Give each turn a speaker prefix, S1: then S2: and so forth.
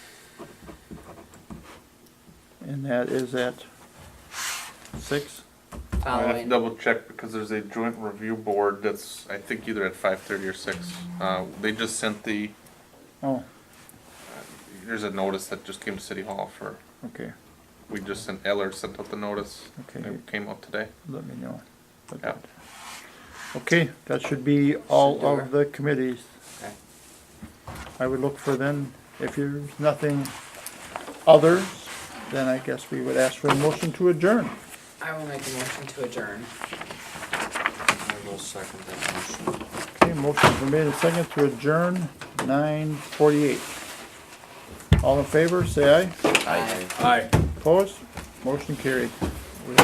S1: and that is at six?
S2: I have to
S3: following.
S2: double check because there's a joint review board that's, I think either at five thirty or six. Uh, they just sent the,
S1: Oh,
S2: there's a notice that just came to City Hall for,
S1: okay,
S2: we just sent, Eller sent out the notice.
S1: Okay.
S2: It came out today.
S1: let me know. about
S2: Yeah.
S1: that. Okay, that should be all
S3: Should do
S1: of the committees.
S3: Okay.
S1: I would look for then, if there's nothing others, then I guess we would ask for a motion to adjourn.
S3: I will make a motion to adjourn.
S4: I will second that motion.
S1: Okay, motion's been made and seconded to adjourn, nine forty-eight. All in favor, say aye.
S3: Aye.
S4: Aye.
S1: Opposed? Motion carried.